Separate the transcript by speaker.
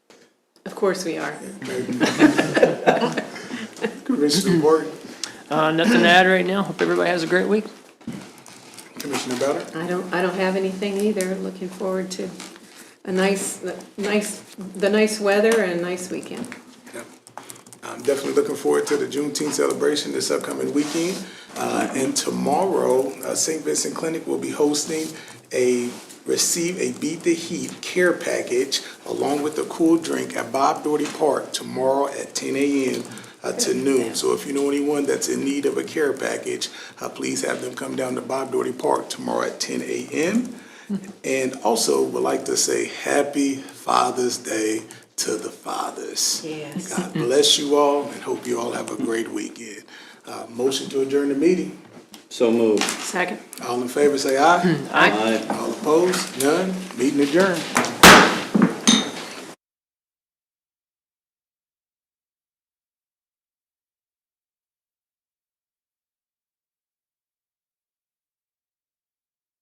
Speaker 1: course we are.
Speaker 2: Commissioner Morgan,
Speaker 3: Uh, nothing to add right now. Hope everybody has a great week.
Speaker 2: Commissioner Ballard,
Speaker 1: I don't, I don't have anything either. Looking forward to a nice, nice, the nice weather and a nice weekend.
Speaker 2: Yeah. I'm definitely looking forward to the Juneteenth celebration this upcoming weekend. Uh, and tomorrow, uh, St. Vincent Clinic will be hosting a, receive a Beat the Heat care package along with a cool drink at Bob Doherty Park tomorrow at ten AM uh, to noon. So if you know anyone that's in need of a care package, uh, please have them come down to Bob Doherty Park tomorrow at ten AM. And also would like to say happy Father's Day to the fathers.
Speaker 1: Yes.
Speaker 2: God bless you all and hope you all have a great weekend. Uh, motion to adjourn the meeting.
Speaker 4: So moved.
Speaker 1: Second.
Speaker 2: All in favor, say aye.
Speaker 3: Aye.
Speaker 4: Aye.
Speaker 2: All opposed? None? Meeting adjourned.